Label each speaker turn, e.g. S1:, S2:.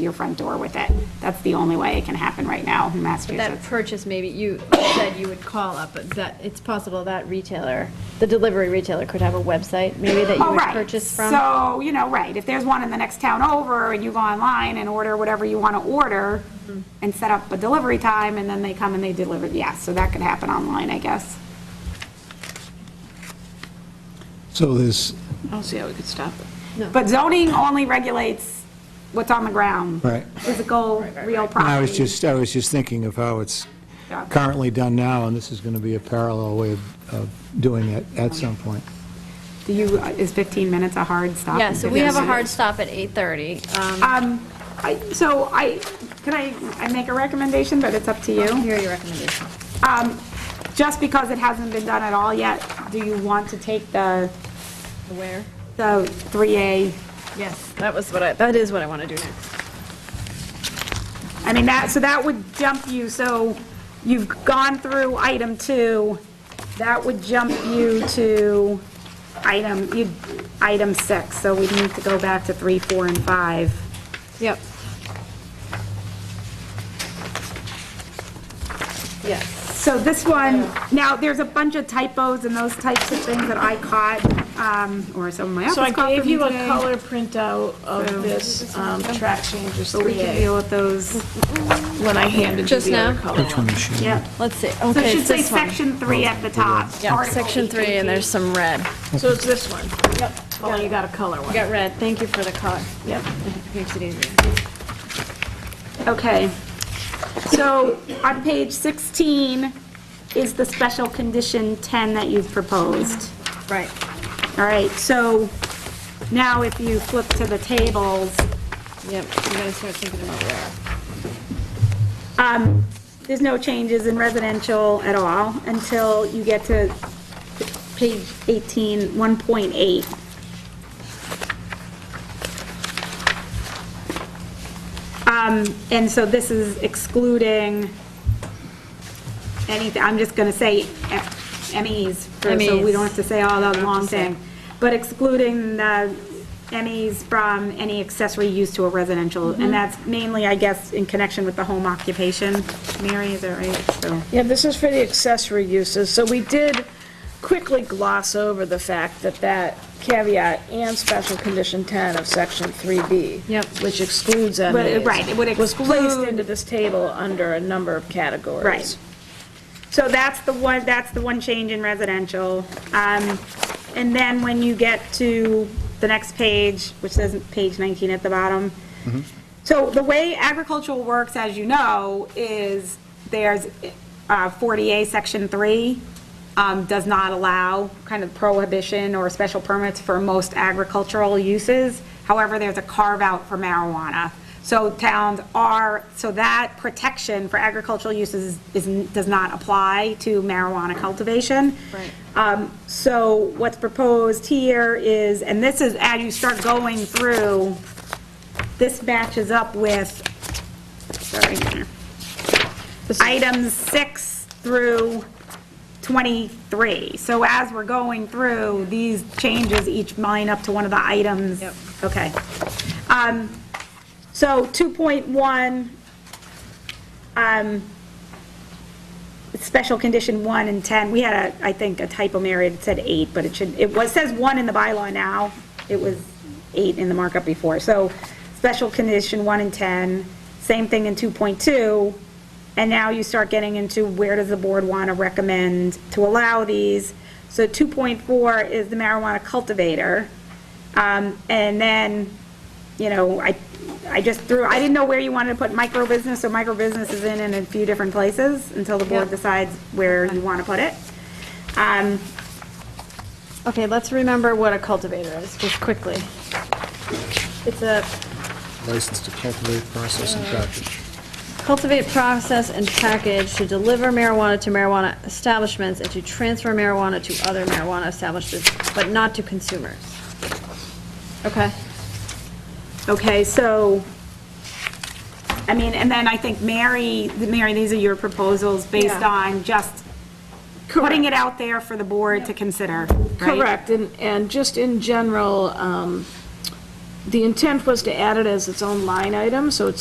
S1: your front door with it. That's the only way it can happen right now in
S2: That
S1: Massachusetts.
S2: purchase, maybe you said you would call up, but that, it's possible that retailer, the delivery retailer could have a website, maybe that you
S1: Oh,
S2: would
S1: right.
S2: purchase from?
S1: So, you know, right, if there's one in the next town over and you go online and order whatever you want to order and set up a delivery time and then they come and they deliver, yeah, so that could happen online, I guess.
S3: So there's,
S4: I don't see how we could stop it.
S1: But zoning only regulates what's on the ground.
S3: Right.
S1: Physical, real property.
S3: I was just, I was just thinking of how it's
S1: Yeah.
S3: currently done now, and this is going to be a parallel way of, of doing it at some point.
S1: Do you, is 15 minutes a hard stop?
S2: Yeah, so we have a hard stop at 8:30. Um,
S1: Um, I- So I, can I, I make a recommendation, but it's up to you.
S2: Here are your recommendations.
S1: Um, Just because it hasn't been done at all yet, do you want to take the,
S2: Where?
S1: the 3A?
S2: Yes, that was what I, that is what I want to do next.
S1: I mean, that, so that would jump you, so you've gone through item two, that would jump you to item, you, item six, so we need to go back to three, four, and five.
S2: Yep. Yes.
S1: So this one, now, there's a bunch of typos and those types of things that I caught, um, or some of my
S4: So I
S1: office caught
S4: gave
S1: from you
S4: you a
S1: today.
S4: color printout of this um, track changes
S1: So we can
S4: 3A
S1: deal with those,
S4: when I handed you
S2: Just
S4: the other
S2: now?
S4: color.
S3: Which one is she?
S1: yep.
S2: Let's see,
S1: So it
S2: okay,
S1: should
S2: it's
S1: say
S2: this one.
S1: section three at the top.
S2: Yeah,
S1: Article
S2: section three, and
S1: 818.
S2: there's some red.
S4: So it's this one. Yep. Oh, you got a color one.
S2: Got red, thank you for the color.
S4: Yep.
S2: Makes it easier.
S1: Okay. So on page 16 is the special condition 10 that you've proposed.
S2: Right.
S1: All right, so now if you flip to the tables,
S2: Yep, you gotta start thinking about where.
S1: um, there's no changes in residential at all until you get to page 18, 1.8. Um, And so this is excluding anything, I'm just going to say F- MEs, for- so we don't have to say all that long thing, but excluding the MEs from any accessory use to a residential, and that's mainly, I guess, in connection with the home occupation. Mary, is that right? So,
S4: Yeah, this is for the accessory uses. So we did quickly gloss over the fact that that caveat and special condition 10 of section 3B.
S2: Yep.
S4: Which excludes
S1: But,
S4: MAs.
S1: right, it would
S4: Was placed
S1: exclude-
S4: into this table under a number of categories.
S1: Right. So that's the one, that's the one change in residential. Um, And then when you get to the next page, which says page 19 at the bottom, So the way agricultural works, as you know, is there's uh, 40A, Section 3, um, does not allow kind of prohibition or special permits for most agricultural uses. However, there's a carve-out for marijuana. So towns are, so that protection for agricultural uses is, does not apply to marijuana cultivation.
S2: Right.
S1: Um, So what's proposed here is, and this is, as you start going through, this matches up with, sorry, items six through 23. So as we're going through, these changes each line up to one of the items.
S2: Yep.
S1: Okay. Um, So 2.1, um, special condition one and 10, we had a, I think, a typo, Mary, it said eight, but it should, it was, says one in the bylaw now, it was eight in the markup before, so special condition one and 10, same thing in 2.2, and now you start getting into where does the board want to recommend to allow these? So 2.4 is the marijuana cultivator, um, and then, you know, I, I just threw, I didn't know where you wanted to put micro business, so micro business is in in a few different places until the board
S2: Yeah.
S1: decides where you want to put it. Um,
S2: Okay, let's remember what a cultivator is, just quickly. It's a
S5: License to cultivate, process, and package.
S2: cultivate, process, and package to deliver marijuana to marijuana establishments and to transfer marijuana to other marijuana establishments, but not to consumers. Okay,
S1: Okay, so, I mean, and then I think Mary, Mary, these are your proposals based
S4: Yeah.
S1: on just putting it out there for the board to consider, right?
S4: Correct, and, and just in general, um, the intent was to add it as its own line item, so it's